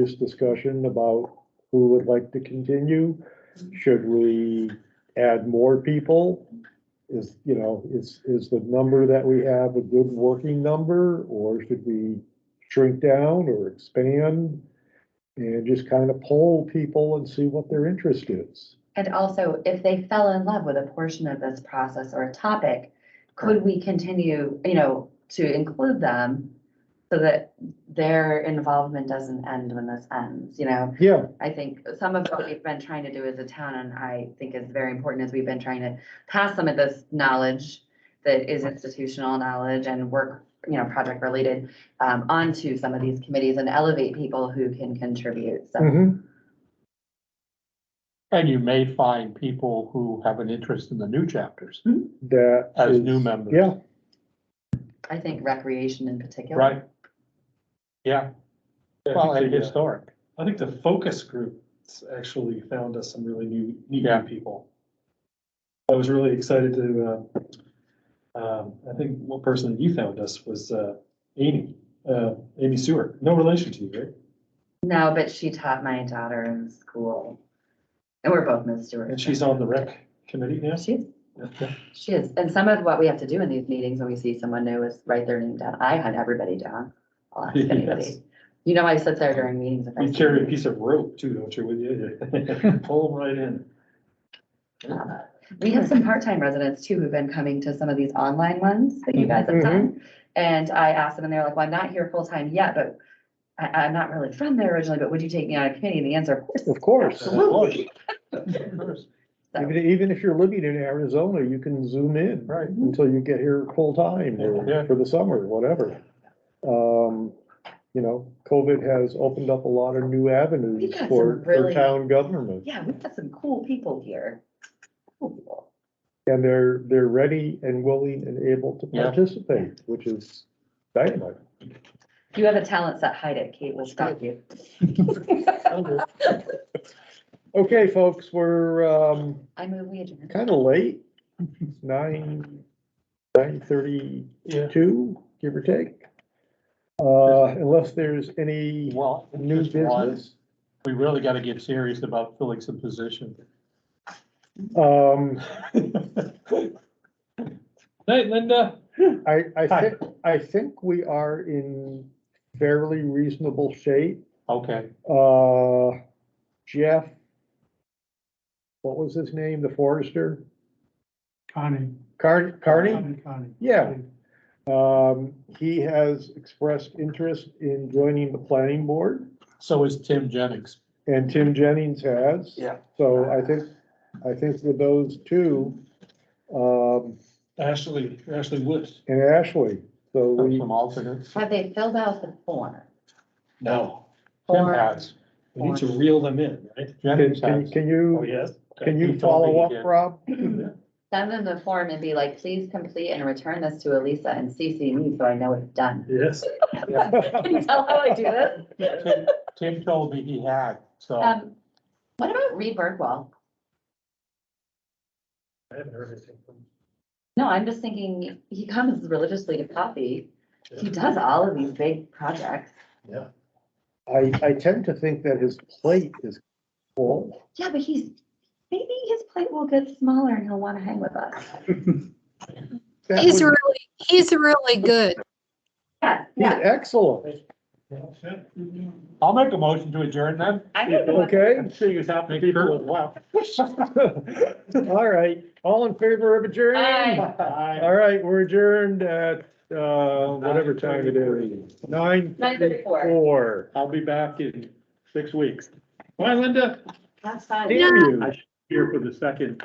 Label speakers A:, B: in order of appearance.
A: this discussion about who would like to continue? Should we add more people? Is, you know, is, is the number that we have a good working number, or should we shrink down or expand? And just kind of poll people and see what their interest is.
B: And also, if they fell in love with a portion of this process or a topic, could we continue, you know, to include them? So that their involvement doesn't end when this ends, you know?
A: Yeah,
B: I think some of what we've been trying to do as a town, and I think is very important, is we've been trying to pass some of this knowledge that is institutional knowledge and work, you know, project related, um, onto some of these committees and elevate people who can contribute. So,
A: mhm,
C: And you may find people who have an interest in the new chapters
A: that.
C: as
A: is-
C: new members.
A: Yeah,
B: I think recreation in particular.
C: Right? Yeah,
D: Yeah,
C: well, and
D: I think the, uh,
C: historic.
D: I think the focus groups actually found us some really new, neat
C: Yeah.
D: new people. I was really excited to, uh, um, I think one person that you found us was, uh, Amy, uh, Amy Stewart, no relation to you, right?
B: No, but she taught my daughter in school. And we're both Miss Stewart.
D: And she's on the rec committee now?
B: She's,
D: Okay.
B: she is. And some of what we have to do in these meetings when we see someone new is write their name down. I hunt everybody down. I'll ask
D: Yes.
B: anybody. You know, I sit there during meetings. if I
D: You
B: see
D: carry a
B: you.
D: piece of rope too, don't you, with you? Pull them right in.
B: Um, We have some part-time residents too who've been coming to some of these online ones that you guys have
D: Mm-hmm.
B: done. And I asked them and they're like, well, I'm not here full-time yet, but I, I'm not really from there originally, but would you take me on a committee? And the answer, of course.
A: of course.
B: Absolutely. So-
A: Even, even if you're living in Arizona, you can zoom in.
C: Right.
A: Until you get here full time
C: Yeah.
A: or for the summer, whatever. Um, you know, COVID has opened up a lot of new
B: We
A: avenues
B: got
A: for,
B: some
A: for
B: really-
A: town government.
B: Yeah, we've got some cool people here. Cool people.
A: And they're, they're ready and willing and able to
C: Yeah.
A: participate, which is dynamite.
B: You have a talent set, hide it, Kate, we'll stop you.
A: Okay, folks, we're, um,
B: I move we adjourn.
A: kind of late. It's Nine, nine thirty-two,
C: Yeah,
A: give or take. Uh, unless there's any
C: well,
A: new
C: just one,
A: business.
C: we really gotta get serious about filling some positions.
A: Um,
D: Night, Linda.
A: I, I
C: Hi.
A: think, I think we are in fairly reasonable shape.
C: Okay,
A: Uh, Jeff, what was his name, the forester?
E: Connie.
A: Car- Carney?
E: Connie, Connie.
A: Yeah. Um, he has expressed interest in joining the planning board
C: so is Tim Jennings.
A: and Tim Jennings has.
C: Yeah.
A: So I think, I think with those two, um,
C: Ashley, Ashley Woods.
A: and Ashley, so we.
C: Some alternates.
B: Have they filled out the form?
D: No,
C: Tim
B: Form.
C: has.
D: we need to reel them in, right?
A: Can,
C: Jennings
A: can,
C: has.
A: can
D: Oh,
A: you,
D: yes.
A: can
C: He
A: you
C: told me
A: follow
C: he
A: up,
C: did.
A: Rob?
B: Send them the form and be like, please complete and return this to Elisa and CC me so I know it's done.
D: Yes.
B: Can you tell how I do this?
C: Tim- Tim told me he had, so.
B: Um, what about Reed Birdwell?
D: I haven't heard anything from.
B: No, I'm just thinking, he comes religiously to coffee. He does all of these big projects.
D: Yeah.
A: I, I tend to think that his plate is full.
B: Yeah, but he's, maybe his plate will get smaller and he'll want to hang with us.
A: That
F: He's
A: would-
F: really, he's really good.
B: Yeah,
A: He's
B: yeah.
A: excellent.
C: I'll make a motion to adjourn then.
B: I think the one-
A: Okay,
C: Seeing as how many people as well.
A: all right. All in favor of adjourned?
B: Aye.
A: All right, we're adjourned at, uh, whatever time it is. Nine thirty-four.
C: I'll be back in six weeks.
D: Bye, Linda.
B: That's fine.
A: Damn you.
C: Here for the second